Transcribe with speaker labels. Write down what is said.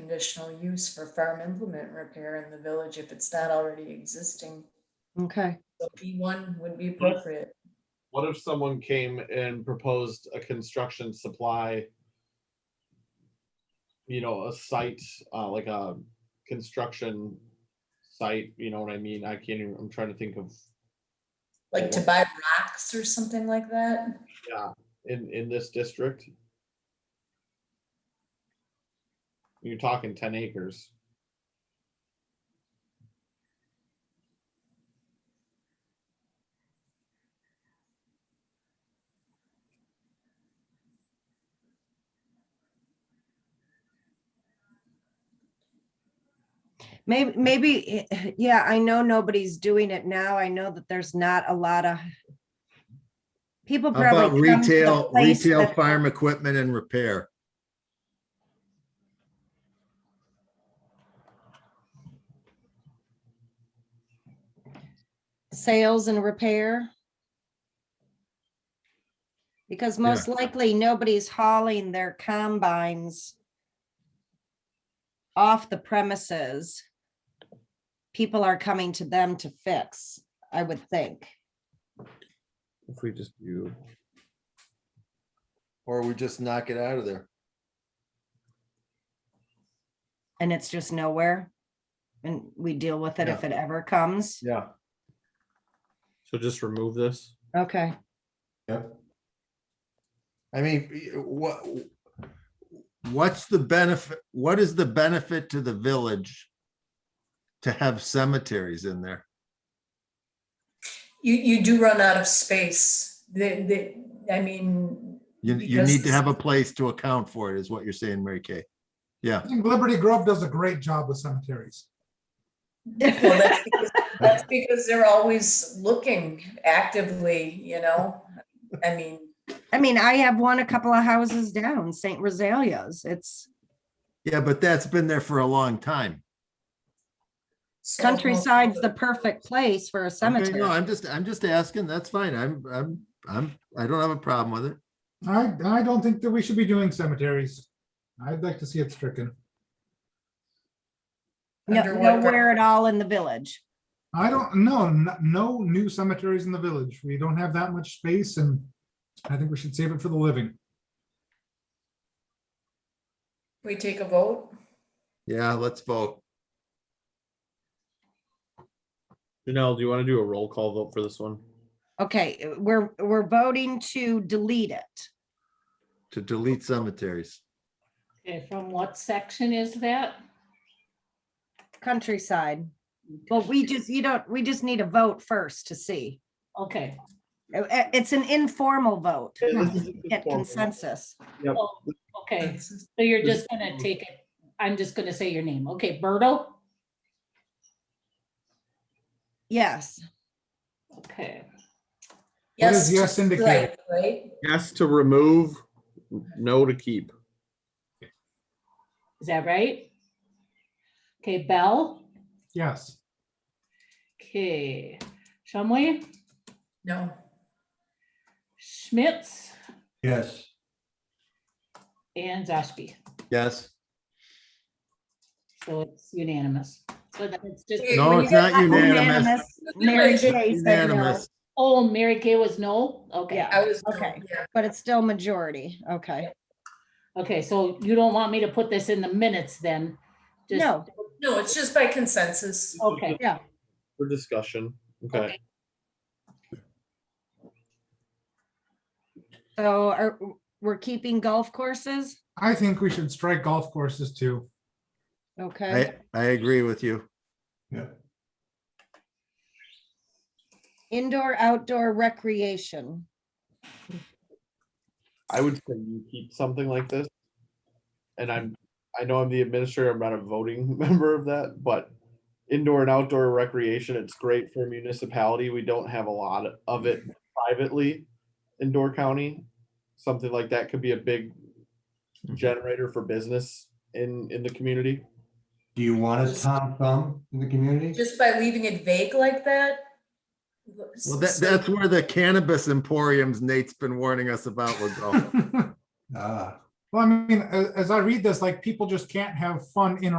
Speaker 1: conditional use for farm implement repair in the village if it's not already existing.
Speaker 2: Okay,
Speaker 1: So P one would be appropriate.
Speaker 3: What if someone came and proposed a construction supply? You know, a site, uh, like a construction site, you know what I mean? I can't even, I'm trying to think of,
Speaker 1: Like to buy rocks or something like that?
Speaker 3: yeah, in, in this district. You're talking ten acres.
Speaker 2: maybe, maybe, eh, yeah, I know nobody's doing it now. I know that there's not a lot of people
Speaker 4: How about
Speaker 2: probably. come to the
Speaker 4: retail,
Speaker 2: place
Speaker 4: retail
Speaker 2: that-
Speaker 4: farm equipment and repair?
Speaker 2: Sales and repair. Because most likely, nobody's hauling their combines off the premises. People are coming to them to fix, I would think.
Speaker 3: If we just do.
Speaker 4: Or we just knock it out of there?
Speaker 2: and it's just nowhere. And we deal with it if it ever comes.
Speaker 4: Yeah.
Speaker 3: So just remove this?
Speaker 2: Okay.
Speaker 4: Yep. I mean, what? What's the benefit, what is the benefit to the village? To have cemeteries in there?
Speaker 1: You, you do run out of space. The, the, I mean,
Speaker 4: You, you
Speaker 1: Because
Speaker 4: need to
Speaker 1: it's-
Speaker 4: have a place to account for it, is what you're saying, Mary Kay. Yeah,
Speaker 5: I think Liberty Grove does a great job with cemeteries.
Speaker 1: well, that's because, that's because they're always looking actively, you know? I mean,
Speaker 2: I mean, I have one a couple of houses down, St. Rosalia's. It's
Speaker 4: yeah, but that's been there for a long time.
Speaker 1: so-
Speaker 2: countryside's the perfect place for a
Speaker 4: Okay, No,
Speaker 2: cemetery.
Speaker 4: I'm just, I'm just asking, that's fine, I'm, I'm, I'm, I don't have a problem with it.
Speaker 5: I, I don't think that we should be doing cemeteries. I'd like to see it stricken.
Speaker 2: No-
Speaker 1: Under what
Speaker 2: Nowhere at all in the village.
Speaker 5: I don't, no, n- no new cemeteries in the village. We don't have that much space and I think we should save it for the living.
Speaker 1: We take a vote?
Speaker 4: Yeah, let's vote.
Speaker 3: Janelle, do you want to do a roll call vote for this one?
Speaker 2: Okay, uh, we're, we're voting to delete it.
Speaker 4: to delete cemeteries.
Speaker 6: Okay, from what section is that?
Speaker 2: Countryside. Well, we just, you don't, we just need a vote first to see.
Speaker 6: Okay,
Speaker 2: Uh, uh, It's an informal vote. Get
Speaker 3: Yep.
Speaker 2: consensus.
Speaker 6: oh, okay, so you're just gonna take it, I'm just gonna say your name. Okay, Berto?
Speaker 2: Yes.
Speaker 6: Okay,
Speaker 5: What does
Speaker 1: Yes,
Speaker 5: yes indicate?
Speaker 1: right, right?
Speaker 3: Yes to remove, no to keep.
Speaker 6: is that right? Okay, Bell?
Speaker 5: Yes.
Speaker 6: Okay, Shumway,
Speaker 1: No.
Speaker 6: Schmitz,
Speaker 4: Yes.
Speaker 6: and Zashki.
Speaker 4: Yes.
Speaker 6: So it's unanimous. So that's just,
Speaker 1: Wait,
Speaker 4: No,
Speaker 1: when
Speaker 4: Oh, it's not unanimous.
Speaker 2: Unanimous. Mary
Speaker 1: It's
Speaker 2: Kay said no,
Speaker 4: Unanimous.
Speaker 6: oh, Mary Kay was no? Okay,
Speaker 1: I was,
Speaker 2: Okay.
Speaker 1: yeah.
Speaker 2: but it's still majority. Okay.
Speaker 6: okay, so you don't want me to put this in the minutes then? Just-
Speaker 2: No.
Speaker 1: No, it's just by consensus.
Speaker 6: Okay,
Speaker 3: For discussion, okay.
Speaker 6: okay,
Speaker 2: So are, we're keeping golf courses?
Speaker 5: I think we should strike golf courses too.
Speaker 2: Okay.
Speaker 4: I, I agree with you.
Speaker 2: Indoor, outdoor recreation.
Speaker 3: I would say you keep something like this. And I'm, I know I'm the administrator, I'm not a voting member of that, but indoor and outdoor recreation, it's great for a municipality. We don't have a lot of it privately in Door County. Something like that could be a big generator for business in, in the community.
Speaker 7: Do you want a Tom Thumb in the community?
Speaker 1: Just by leaving it vague like that?
Speaker 4: Well, that, that's where the cannabis emporiums Nate's been warning us about would go.
Speaker 5: Well,
Speaker 7: Ah,
Speaker 5: Well, I mean, as, as I read this, like people just can't have fun in